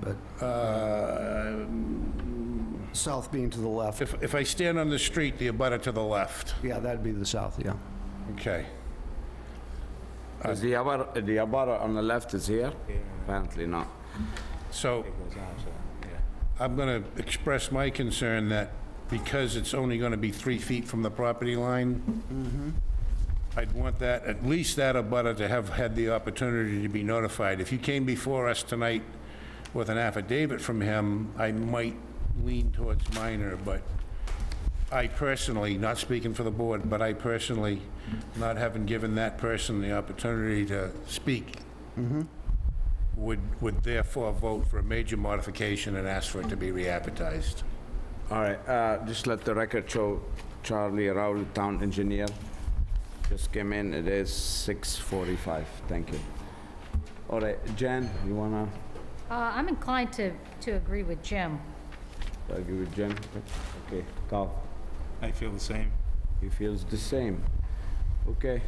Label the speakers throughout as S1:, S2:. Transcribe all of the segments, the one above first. S1: but south being to the left.
S2: If, if I stand on the street, the abutter to the left,
S1: Yeah, that'd be the south, yeah.
S2: okay.
S3: Is the abutter, the abutter on the left is here? Apparently not.
S2: So I'm going to express my concern that because it's only going to be three feet from the property line, I'd want that, at least that abutter to have had the opportunity to be notified. If you came before us tonight with an affidavit from him, I might lean towards minor, but I personally, not speaking for the board, but I personally, not having given that person the opportunity to speak, would, would therefore vote for a major modification and ask for it to be re-advertised.
S3: All right, uh, just let the record show Charlie Rowley, town engineer, just came in, it is 6:45, thank you. All right, Jen, you wanna
S4: Uh, I'm inclined to, to agree with Jim.
S3: argue with Jen? Okay, Carl,
S5: I feel the same.
S3: he feels the same. Okay.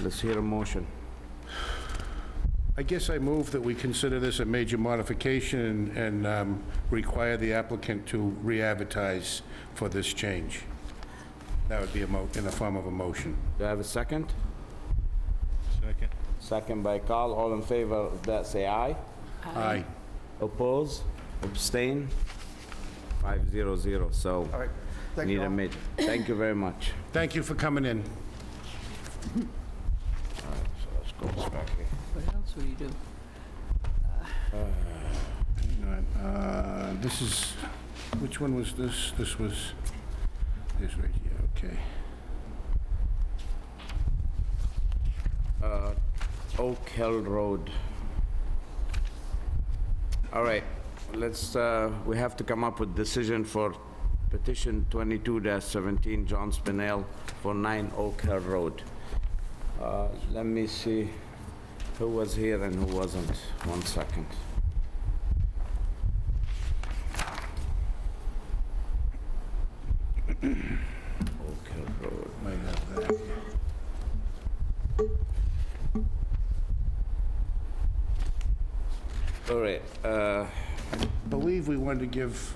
S3: Let's hear a motion.
S2: I guess I move that we consider this a major modification and um, require the applicant to re-advertise for this change. That would be a mo, in the form of a motion.
S3: Do I have a second?
S5: Second.
S3: Second by Carl, all in favor of that, say aye.
S2: Aye.
S3: Oppose, abstain, 500, so.
S1: All right, thank you
S3: Need a
S1: all.
S3: mid, thank you very much.
S2: Thank you for coming in.
S3: So let's go this back here.
S6: What else would you do?
S2: Hang on, uh, This is, which one was this? This was, this right here, okay.
S3: Oak Hill Road. All right, let's, uh, we have to come up with decision for petition 22-17 John Spinell for 9 Oak Hill Road. Uh, Let me see who was here and who wasn't. One second. Oak Hill Road.
S2: Might have that.
S3: All right, uh,
S2: Believe we wanted to give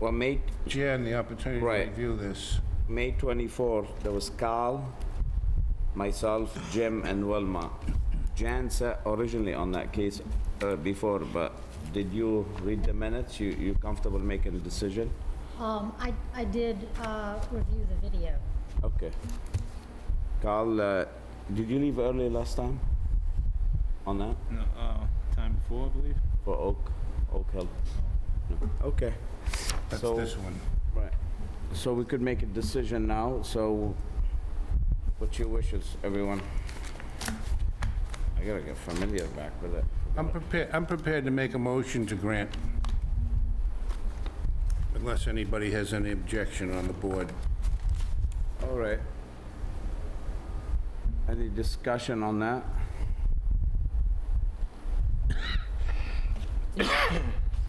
S3: well, make,
S2: Jan the opportunity to
S3: Right.
S2: review this.
S3: May 24, there was Carl, myself, Jim, and Wilma. Jan sat originally on that case uh, before, but did you read the minutes? You you comfortable making a decision?
S4: Um, I, I did, uh, review the video.
S3: Okay. Carl, uh, did you leave early last time on that
S5: No, uh, time before, I believe.
S3: for Oak, Oak Hill? No. Okay.
S2: That's
S3: So-
S2: this one.
S3: Right. So we could make a decision now, so what's your wishes, everyone? I gotta get familiar back with it.
S2: I'm prepared, I'm prepared to make a motion to grant, unless anybody has any objection on the board.
S3: All right. Any discussion on that?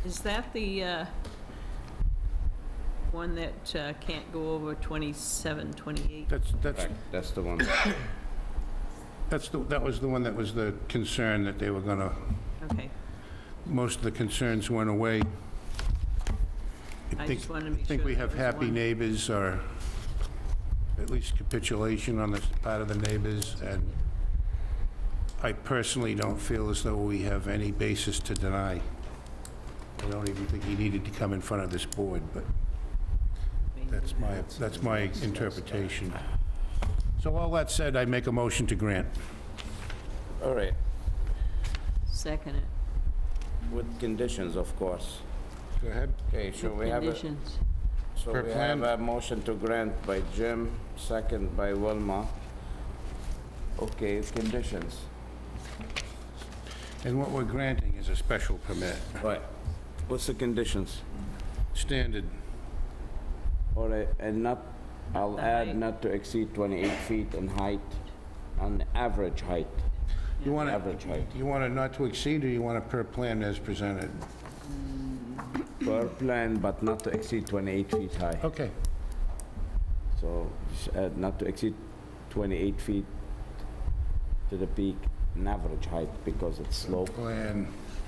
S6: Is that the uh, one that uh, can't go over 27, 28?
S2: That's, that's,
S3: That's the one.
S2: that's, the that was the one that was the concern that they were gonna,
S6: Okay,
S2: most of the concerns went away.
S6: I
S2: think-
S6: just wanted to make
S2: I
S6: sure.
S2: think we
S6: that
S2: have
S6: was
S2: happy
S6: one.
S2: neighbors, or at least capitulation on the part of the neighbors, and I personally don't feel as though we have any basis to deny. I don't even think he needed to come in front of this board, but that's my, that's my interpretation. So all that said, I make a motion to grant.
S3: All right,
S6: Second it,
S3: with conditions, of course.
S2: Go ahead.
S3: Okay, so we have, a-
S6: conditions.
S3: so
S2: Per
S3: we
S2: plan.
S3: have a motion to grant by Jim, second by Wilma. Okay, conditions.
S2: And what we're granting is a special permit,
S3: Right. What's the conditions?
S2: standard.
S3: All right, and not, I'll
S6: the
S3: add
S6: height.
S3: not to exceed 28 feet in height, on average height,
S2: You want
S3: average
S2: to,
S3: height.
S2: you want it not to exceed, or you want it per plan as presented?
S3: Per plan, but not to exceed 28 feet high.
S2: Okay.
S3: So just add not to exceed 28 feet to the peak, an average height, because it's slope.
S2: Plan